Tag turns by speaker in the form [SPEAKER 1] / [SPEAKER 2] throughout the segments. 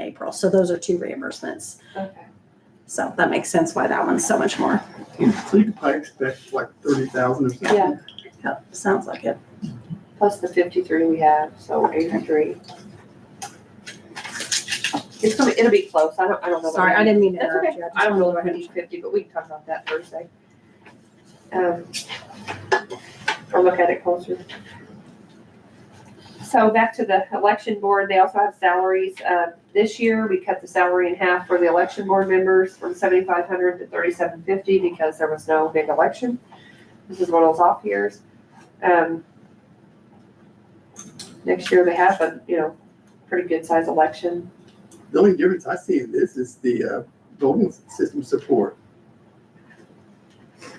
[SPEAKER 1] April. So those are two reimbursements.
[SPEAKER 2] Okay.
[SPEAKER 1] So that makes sense why that one's so much more.
[SPEAKER 3] Including, I expect like thirty thousand or something.
[SPEAKER 2] Yeah,
[SPEAKER 1] Yep, sounds like it.
[SPEAKER 2] plus the fifty-three we have, so eighty-three. It's gonna, it'll be close, I don't, I don't know. what
[SPEAKER 1] Sorry, I
[SPEAKER 2] we-
[SPEAKER 1] didn't mean to
[SPEAKER 2] That's
[SPEAKER 1] interrupt
[SPEAKER 2] okay,
[SPEAKER 1] you. just
[SPEAKER 2] I don't know
[SPEAKER 1] wanted
[SPEAKER 2] if
[SPEAKER 1] to
[SPEAKER 2] I
[SPEAKER 1] finish.
[SPEAKER 2] need fifty, but we can talk about that Thursday. Um, I'll look at it closer. So back to the election board, they also have salaries, uh, this year, we cut the salary in half for the election board members from seventy-five hundred to thirty-seven fifty because there was no big election. This is one of those off years. Um, next year they have a, you know, pretty good size election.
[SPEAKER 3] The only difference I see in this is the, uh, voting system support.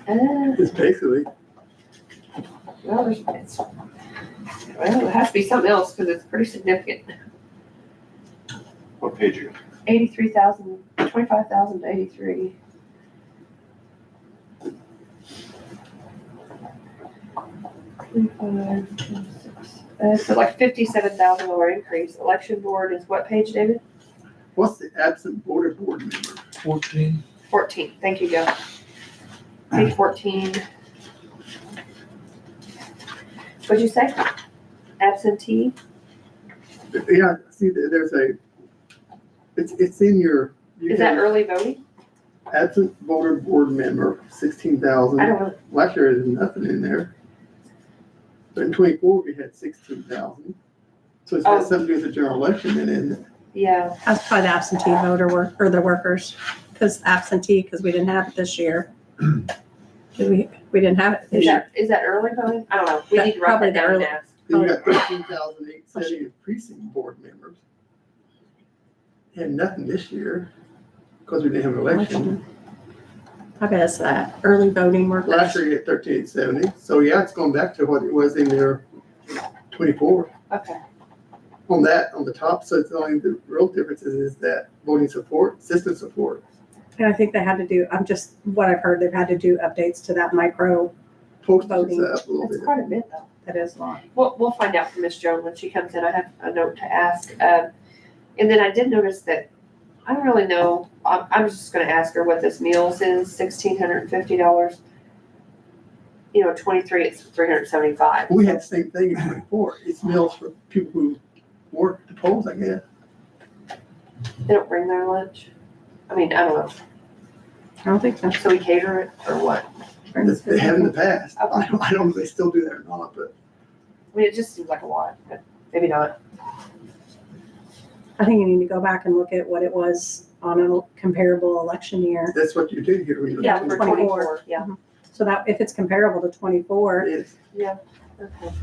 [SPEAKER 2] Uh,
[SPEAKER 3] It's basically,
[SPEAKER 2] Well, there's, it's, well, it has to be something else, because it's pretty significant.
[SPEAKER 4] What page you?
[SPEAKER 2] Eighty-three thousand, twenty-five thousand to eighty-three. Twenty-five, twenty-six, uh, so like fifty-seven thousand dollar increase, election board is what page, David?
[SPEAKER 3] what's the absent voter board member?
[SPEAKER 5] Fourteen.
[SPEAKER 2] Fourteen, thank you, Joe. Page fourteen. What'd you say? Absentee?
[SPEAKER 3] Yeah, see, there- there's a, it's, it's in your. you
[SPEAKER 2] Is that
[SPEAKER 3] have
[SPEAKER 2] early voting?
[SPEAKER 3] Absent voter board member, sixteen
[SPEAKER 2] I
[SPEAKER 3] thousand.
[SPEAKER 2] don't know.
[SPEAKER 3] Last year, there's nothing in there. But in twenty-four, we had sixteen thousand. So it's
[SPEAKER 2] Oh.
[SPEAKER 3] got something to do with the general election and then
[SPEAKER 2] Yeah,
[SPEAKER 1] That's probably the absentee voter work, or the workers, because absentee, because we didn't have it this year. Did we, we didn't have it
[SPEAKER 2] is
[SPEAKER 1] this year.
[SPEAKER 2] that, is that early voting? I don't know. We
[SPEAKER 1] That-
[SPEAKER 2] need to write
[SPEAKER 1] probably
[SPEAKER 2] that
[SPEAKER 1] the
[SPEAKER 2] down and
[SPEAKER 1] early-
[SPEAKER 2] ask.
[SPEAKER 3] Then you got thirteen thousand eight seventy precinct board members. And nothing this year, because we didn't have an election.
[SPEAKER 1] I bet it's that, early voting workers.
[SPEAKER 3] Last year you had thirteen eight seventy, so yeah, it's going back to what it was in there twenty-four.
[SPEAKER 2] Okay,
[SPEAKER 3] On that, on the top, so it's only the real difference is, is that voting support, system support.
[SPEAKER 1] And I think they had to do, I'm just, what I've heard, they've had to do updates to that micro,
[SPEAKER 3] Postage is
[SPEAKER 1] Voting.
[SPEAKER 3] up a little
[SPEAKER 2] that's
[SPEAKER 3] bit.
[SPEAKER 2] quite a bit though.
[SPEAKER 1] that is long.
[SPEAKER 2] We'll, we'll find out from Miss Joan when she comes in. I have a note to ask. Um, and then I did notice that, I don't really know, I'm, I'm just gonna ask her what this meals is, sixteen hundred and fifty dollars. You know, twenty-three, it's three hundred and seventy-five.
[SPEAKER 3] We had the same thing in twenty-four, it's meals for people who work the polls, I guess.
[SPEAKER 2] They don't bring their lunch? I mean, I don't
[SPEAKER 1] I don't think
[SPEAKER 2] know.
[SPEAKER 1] that's.
[SPEAKER 2] So we cater it or what?
[SPEAKER 3] That's- They have in the past, I don't, I don't know if they still do that or not, but
[SPEAKER 2] I mean, it just seems like a lot, but maybe not.
[SPEAKER 1] I think you need to go back and look at what it was on a comparable election year.
[SPEAKER 3] that's what you do here. when you're
[SPEAKER 2] Yeah,
[SPEAKER 3] doing
[SPEAKER 2] for
[SPEAKER 3] polls.
[SPEAKER 2] twenty-four, yeah.
[SPEAKER 1] So that, if it's comparable to twenty-four,
[SPEAKER 3] Yes.
[SPEAKER 2] Okay.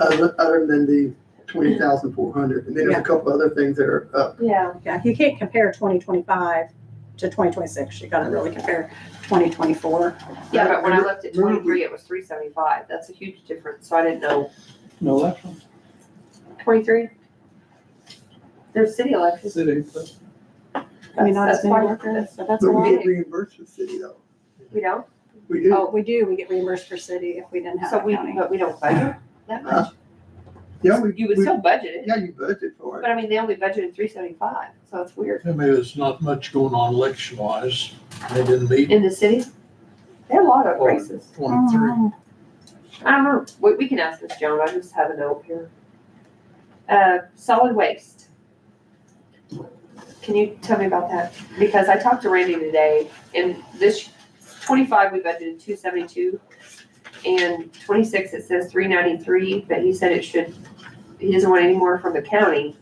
[SPEAKER 3] other, other than the twenty thousand four hundred, and then there's a
[SPEAKER 1] Yeah.
[SPEAKER 3] couple other things that are up.
[SPEAKER 2] Yeah,
[SPEAKER 1] yeah, you can't compare twenty twenty-five to twenty twenty-six. You gotta really compare twenty twenty-four.
[SPEAKER 2] yeah, but when I looked at
[SPEAKER 3] Remember we-
[SPEAKER 2] twenty-three, it was three seventy-five, that's a huge difference, so I didn't know.
[SPEAKER 5] No election,
[SPEAKER 2] Twenty-three? There's city elections.
[SPEAKER 5] city.
[SPEAKER 1] I mean, not as
[SPEAKER 2] That's- that's
[SPEAKER 1] many
[SPEAKER 2] why-
[SPEAKER 1] workers.
[SPEAKER 2] that's- That's
[SPEAKER 3] But we
[SPEAKER 2] why,
[SPEAKER 3] get reimbursed for city though.
[SPEAKER 2] we don't,
[SPEAKER 3] We do,
[SPEAKER 2] Oh.
[SPEAKER 1] But we do, we get reimbursed for city if we didn't have
[SPEAKER 2] so
[SPEAKER 1] a
[SPEAKER 2] we,
[SPEAKER 1] county.
[SPEAKER 2] but we don't budget that
[SPEAKER 3] Huh?
[SPEAKER 2] much.
[SPEAKER 3] yeah, we,
[SPEAKER 2] You would
[SPEAKER 3] we-
[SPEAKER 2] still budget it,
[SPEAKER 3] yeah, you budget for
[SPEAKER 2] but
[SPEAKER 3] it.
[SPEAKER 2] I mean, they only budgeted three seventy-five, so it's weird.
[SPEAKER 5] I mean, there's not much going on election wise. They didn't meet
[SPEAKER 2] In the city, there are a lot of
[SPEAKER 5] Well,
[SPEAKER 2] races.
[SPEAKER 5] twenty-three.
[SPEAKER 1] Oh.
[SPEAKER 2] I don't know, we, we can ask Miss Joan, I just have a note here. Uh, solid waste. Can you tell me about that? Because I talked to Randy today, and this twenty-five, we budgeted two seventy-two, and twenty-six, it says three ninety-three, but he said it should, he doesn't want any more from the county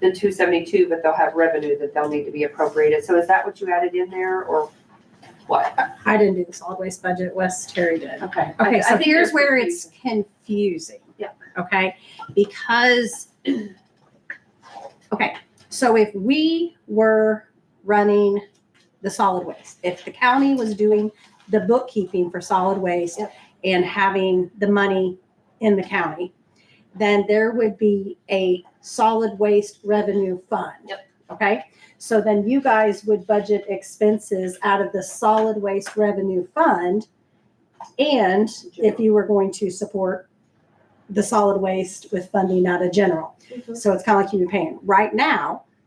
[SPEAKER 2] than two seventy-two, but they'll have revenue that they'll need to be appropriated, so is that what you added in there, or what?
[SPEAKER 1] I didn't do the solid waste budget, Wes Terry did.
[SPEAKER 2] Okay.
[SPEAKER 1] Okay, so here's where it's confusing.
[SPEAKER 2] Yeah.
[SPEAKER 1] Okay, because, okay, so if we were running the solid waste, if the county was doing the bookkeeping for solid waste
[SPEAKER 2] Yep.
[SPEAKER 1] and having the money in the county, then there would be a solid waste revenue fund.
[SPEAKER 2] Yep.
[SPEAKER 1] Okay, so then you guys would budget expenses out of the solid waste revenue fund. And if you were going to support the solid waste with funding out of general. So it's kind of like you'd be paying. Right now,